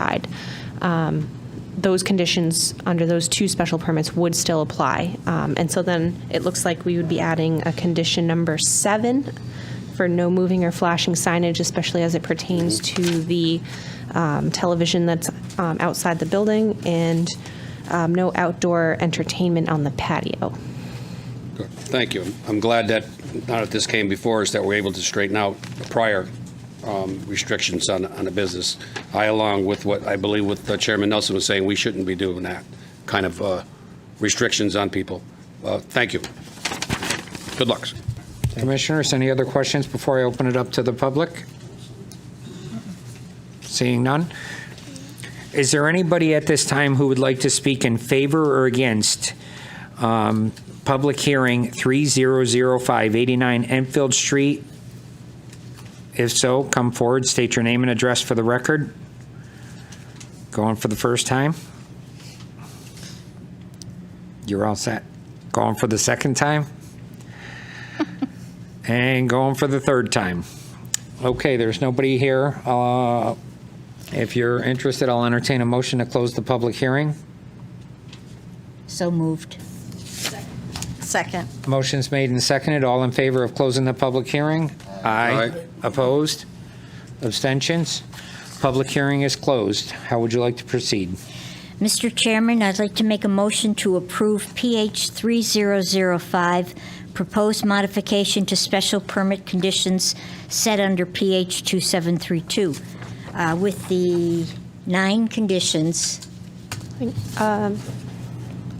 side. Um, Those conditions under those two special permits would still apply. Um, And so then it looks like we would be adding a condition number seven for no moving or flashing signage, especially as it pertains to the um, television that's um, outside the building and um, no outdoor entertainment on the patio. Thank you. I'm glad that, now that this came before us, that we're able to straighten out the prior um, restrictions on, on a business. I, along with what I believe what uh, Chairman Nelson was saying, we shouldn't be doing that kind of uh, restrictions on people. Uh, Thank you. Good luck. Commissioners, any other questions before I open it up to the public? Seeing none. Is there anybody at this time who would like to speak in favor or against um, public hearing 3005 89 Enfield Street? If so, come forward, state your name and address for the record. Going for the first time? You're all set. Going for the second time? And going for the third time. Okay, there's nobody here. Uh, If you're interested, I'll entertain a motion to close the public hearing. So moved. Second. Motion's made and seconded. All in favor of closing the public hearing? Aye. Opposed? Abstentions? Public hearing is closed. How would you like to proceed? Mr. Chairman, I'd like to make a motion to approve PH 3005, proposed modification to special permit conditions set under PH 2732, uh, with the nine conditions.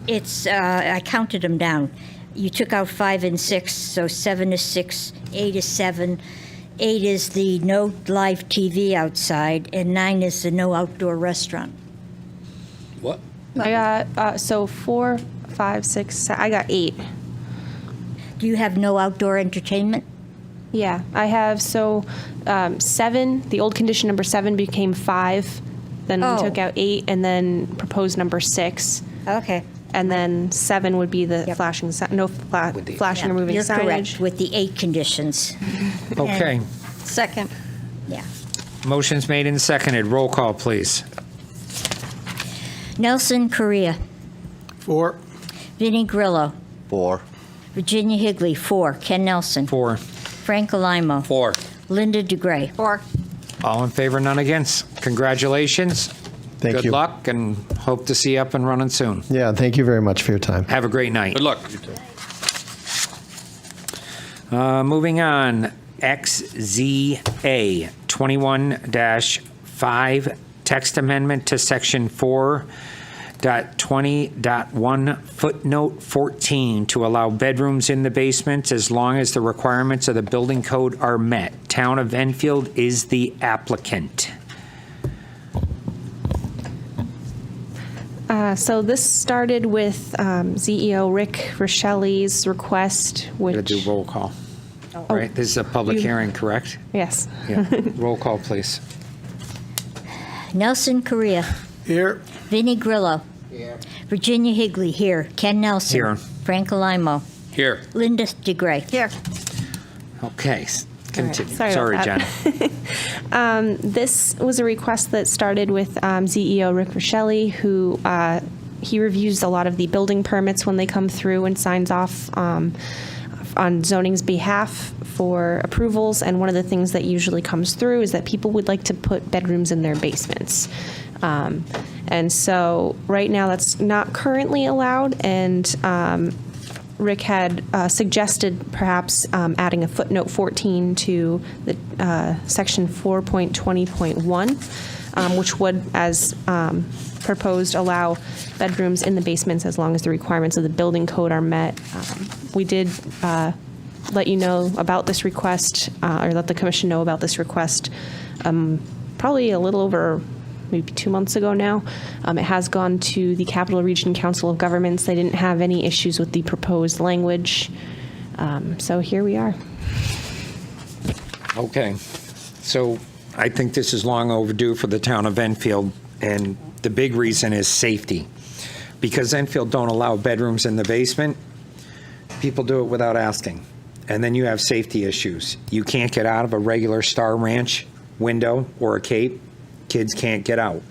It's, uh, I counted them down. You took out five and six, so seven is six, eight is seven, eight is the no live TV outside, and nine is the no outdoor restaurant. What? I got, uh, so four, five, six, se- I got eight. Do you have no outdoor entertainment? Yeah, I have, so um, seven, the old condition number seven became five, then we Oh. took out eight, and then proposed number six. Okay. And then seven would be the Yep. flashing, si- no fla- flashing or Yeah, moving You're correct, signage. with the eight conditions. Okay, Second. Yeah. motion's made and seconded. Roll call, please. Nelson Correa. Four. Vinnie Grillo. Four. Virginia Higley, four. Ken Nelson. Four. Frank Alamo. Four. Linda DeGray. Four. All in favor, none against. Congratulations. Thank you. Good luck and hope to see you up and running soon. Yeah, thank you very much for your time. Have a great night. Good luck. Uh, Moving on, XZA 21-5, text amendment to section 4.20.1 footnote 14 to allow bedrooms in the basement as long as the requirements of the building code are met. Town of Enfield is the applicant. Uh, So this started with um, CEO Rick Rochelli's request, Gotta do which, Oh. roll call. Right, this is a public You- hearing, correct? yes. Yeah, roll call, please. Nelson Correa. Here. Vinnie Grillo. Virginia Higley, here. Ken Nelson. Here. Frank Alamo. Here. Linda DeGray. Here. Okay, s- continue. sorry about Sorry, that. Jen. Um, this was a request that started with um, CEO Rick Rochelli, who uh, he reviews a lot of the building permits when they come through and signs off um, on zoning's behalf for approvals. And one of the things that usually comes through is that people would like to put bedrooms in their basements. Um, and so right now that's not currently allowed. And um, Rick had uh, suggested perhaps um, adding a footnote 14 to the uh, section 4.20.1, um, which would, as um, proposed, allow bedrooms in the basements as long as the requirements of the building code are met. Um, we did uh, let you know about this request, uh, or let the commission know about this request um, probably a little over maybe two months ago now. Um, it has gone to the Capital Region Council of Governments. They didn't have any issues with the proposed language. Um, so here we are. Okay, so I think this is long overdue for the town of Enfield, and the big reason is safety. Because Enfield don't allow bedrooms in the basement, people do it without asking. And then you have safety issues. You can't get out of a regular Star Ranch window or a cape, kids can't get out.